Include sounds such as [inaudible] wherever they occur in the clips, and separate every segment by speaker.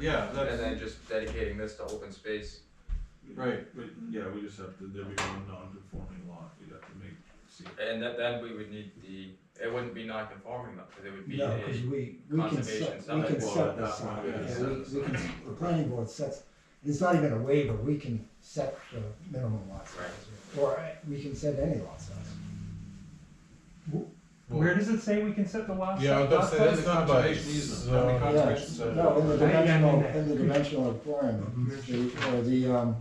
Speaker 1: Yeah,
Speaker 2: and
Speaker 1: that's,
Speaker 2: then just dedicating this to open space.
Speaker 1: right,
Speaker 3: But, yeah, we just have to, there'd be one non-conforming lot, we'd have to make, see.
Speaker 2: And that, then we would need the, it wouldn't be non-conforming though, because it would be
Speaker 4: No,
Speaker 2: a,
Speaker 4: because we, we can
Speaker 2: conservation
Speaker 4: set, we
Speaker 2: summit.
Speaker 4: can
Speaker 3: Well,
Speaker 4: set
Speaker 3: that's
Speaker 4: this up,
Speaker 3: not gonna
Speaker 4: yeah,
Speaker 3: set
Speaker 4: we,
Speaker 3: us
Speaker 4: we
Speaker 3: up.
Speaker 4: can, the planning board sets, it's not even a waiver, we can set the minimum lot size. Or we can set any lot size.
Speaker 5: Where does it say we can set the lot?
Speaker 1: yeah, I was about to say, that's
Speaker 5: size?
Speaker 1: not by
Speaker 3: Conservation easement.
Speaker 1: zone.
Speaker 4: Yeah,
Speaker 1: Conservation said-
Speaker 4: No, in the
Speaker 5: Yeah, yeah, I mean
Speaker 4: dimensional,
Speaker 5: that.
Speaker 4: in the dimensional requirement, the- or the, um,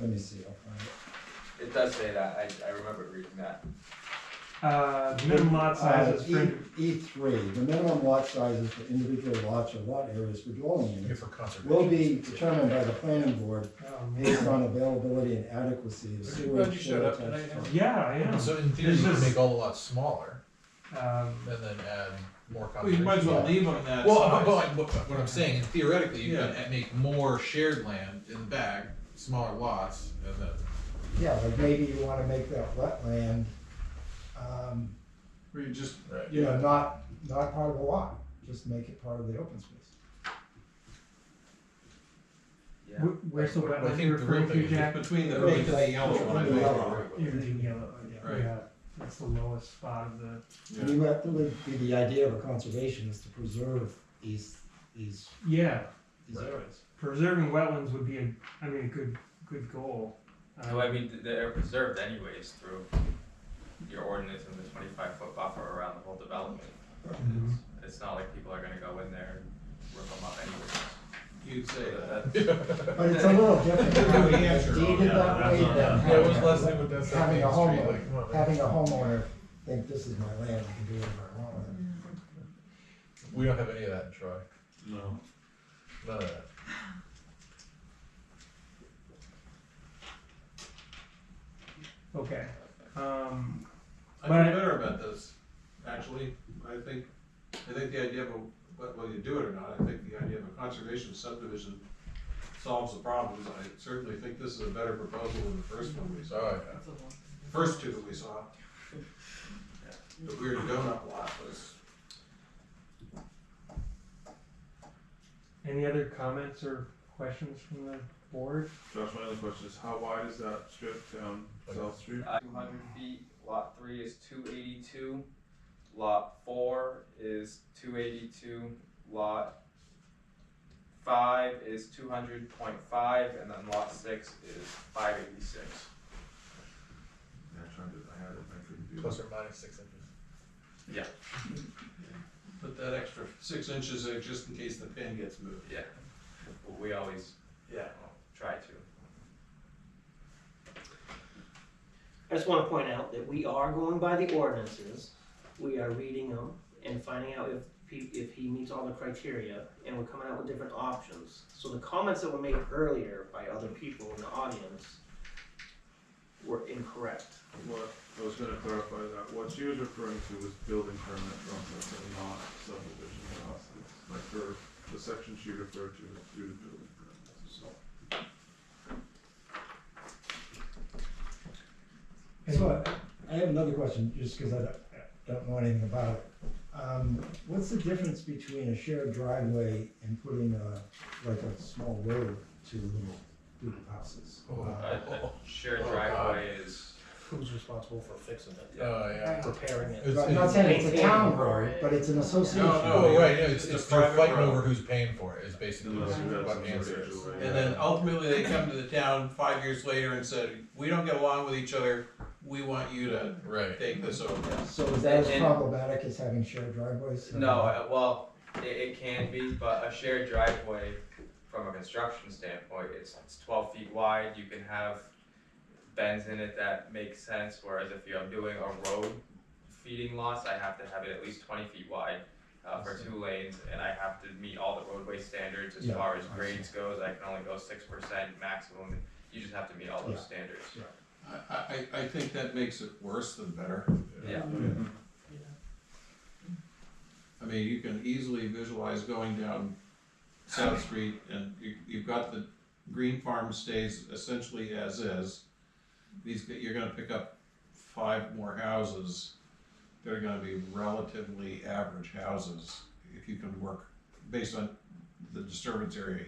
Speaker 4: let me see, I'll find it.
Speaker 2: it does say that, I, I remember reading that.
Speaker 5: Uh, minimum lot size is
Speaker 4: Uh,
Speaker 5: for,
Speaker 4: E three, the minimum lot sizes for individual lots or lot areas for dwelling units
Speaker 6: for conservation.
Speaker 4: will be determined by the planning board
Speaker 5: oh
Speaker 4: based
Speaker 5: man,
Speaker 4: on availability and adequacy of
Speaker 1: Glad
Speaker 4: sewage.
Speaker 1: you showed
Speaker 4: water,
Speaker 1: up tonight,
Speaker 4: taps,
Speaker 1: Henry.
Speaker 5: yeah, I am.
Speaker 6: So in theory,
Speaker 5: This
Speaker 6: you could
Speaker 5: is-
Speaker 6: make all the lots smaller
Speaker 5: Um,
Speaker 6: and then add more
Speaker 1: Well, you
Speaker 6: conservation.
Speaker 1: might as well leave on that
Speaker 6: Well, but,
Speaker 1: size.
Speaker 6: but what- what I'm saying, is theoretically, you can add- make more shared land in the back, smaller lots, and then.
Speaker 4: Yeah, like maybe you wanna make that wetland, um,
Speaker 1: Where you just,
Speaker 4: you know, not, not part of the lot, just make it part of the open space.
Speaker 2: Yeah.
Speaker 5: wh- where's the
Speaker 6: But I
Speaker 5: wetland
Speaker 6: think
Speaker 5: you're
Speaker 6: the
Speaker 5: referring
Speaker 6: real
Speaker 5: to,
Speaker 6: thing is-
Speaker 5: Jack?
Speaker 1: between the
Speaker 4: Really,
Speaker 1: pink and the
Speaker 4: like,
Speaker 1: yellow one, I
Speaker 4: between the
Speaker 1: think.
Speaker 4: yellow.
Speaker 5: In the yellow, yeah,
Speaker 1: Right.
Speaker 5: yeah, that's the lowest spot of the,
Speaker 4: I mean, that would be the idea of a conservation is to preserve these, these,
Speaker 5: yeah,
Speaker 4: these areas.
Speaker 5: preserving wetlands would be a, I mean, a good, good goal. Uh,
Speaker 2: Well, Oh, I mean, th- they're preserved anyways through your ordinance and the twenty-five foot buffer around the whole development.
Speaker 1: Mm-hmm.
Speaker 5: Mhm.
Speaker 2: It's, it's not like people are gonna go in there and rip them up anyways.
Speaker 1: You'd say
Speaker 2: So
Speaker 1: that.
Speaker 2: that-
Speaker 4: But it's a little different
Speaker 1: New
Speaker 4: having it
Speaker 1: Hampshire,
Speaker 4: deeded
Speaker 3: yeah,
Speaker 4: that way
Speaker 3: that's not-
Speaker 4: than
Speaker 3: yeah,
Speaker 6: Yeah, it was Leslie
Speaker 4: having,
Speaker 6: with that stuff
Speaker 4: having
Speaker 6: in
Speaker 4: a
Speaker 6: the street,
Speaker 4: homeowner,
Speaker 6: like, come on, man.
Speaker 4: having a homeowner think this is my land, I can do whatever I want with it.
Speaker 6: We don't have any of that in Troy,
Speaker 3: No.
Speaker 6: none of that.
Speaker 5: Okay, um.
Speaker 1: I
Speaker 5: But-
Speaker 1: feel better about this, actually, I think, I think the idea of, a- wh- whether you do it or not, I think the idea of a conservation subdivision solves the problems, I certainly think this is a better proposal than the first one we saw,
Speaker 6: Oh,
Speaker 1: The first two that we saw.
Speaker 3: [laughs]
Speaker 1: The weird donut lot was,
Speaker 5: Any other comments or questions from the board?
Speaker 3: Josh, my other question is, how wide is that strip down South Street?
Speaker 2: Uh, two hundred feet, lot three is two eighty-two, lot four is two eighty-two, lot five is two hundred point five, and then lot six is five eighty-six.
Speaker 3: Yeah, I tried to, I had it, I couldn't
Speaker 6: yeah,
Speaker 3: do it.
Speaker 6: plus or minus six inches.
Speaker 1: put that extra six inches in just in case the pin gets moved.
Speaker 2: Yeah. We always
Speaker 1: Yeah.
Speaker 2: try to.
Speaker 7: I just want to point out that we are going by the ordinances. We are reading them and finding out if he, if he meets all the criteria, and we're coming out with different options. So the comments that were made earlier by other people in the audience were incorrect.
Speaker 3: What, I was gonna clarify that, what she was referring to was building permit process and not subdivision process. Like her, the section she referred to is through the building permit, so.
Speaker 4: So I- I have another question, just because I don't, I don't know anything about it. Um, what's the difference between a shared driveway and putting a, like a small road to little, little houses?
Speaker 6: Oh,
Speaker 4: Uh,
Speaker 2: A- a shared
Speaker 6: Oh, God.
Speaker 2: driveway is,
Speaker 7: Who's responsible for fixing it?
Speaker 6: Oh, yeah.
Speaker 7: Repairing it.
Speaker 6: It's-
Speaker 4: I'm not
Speaker 6: it's-
Speaker 4: saying it's a town road, but it's an association.
Speaker 6: No, no, right, no, it's,
Speaker 1: Oh, It's a
Speaker 6: it's, they're
Speaker 1: private
Speaker 6: fighting
Speaker 1: road.
Speaker 6: over who's paying for it, is basically what
Speaker 3: Unless you had
Speaker 6: what
Speaker 3: some
Speaker 6: the answer
Speaker 3: sort
Speaker 6: is.
Speaker 3: of.
Speaker 1: And then ultimately, they come to the town five years later and said, we don't get along with each other, we want you to
Speaker 6: Right.
Speaker 1: take this over.
Speaker 4: So is that as
Speaker 2: And-
Speaker 4: problematic as having shared driveways?
Speaker 2: no, uh, well, it, it can be, but a shared driveway, from a construction standpoint, it's, it's twelve feet wide, you can have bends in it that make sense, whereas if you're doing a road feeding loss, I have to have it at least twenty feet wide uh, for two lanes, and I have to meet all the roadway standards as
Speaker 4: Yeah,
Speaker 2: far as
Speaker 4: I see.
Speaker 2: grades goes, I can only go six percent maximum, you just have to meet all
Speaker 4: Yeah.
Speaker 2: those standards.
Speaker 1: I, I, I think that makes it worse than better.
Speaker 2: Yeah.
Speaker 1: I mean, you can easily visualize going down South Street and you, you've got the green farm stays essentially as is. These, you're gonna pick up five more houses. They're gonna be relatively average houses if you can work based on
Speaker 6: the disturbance area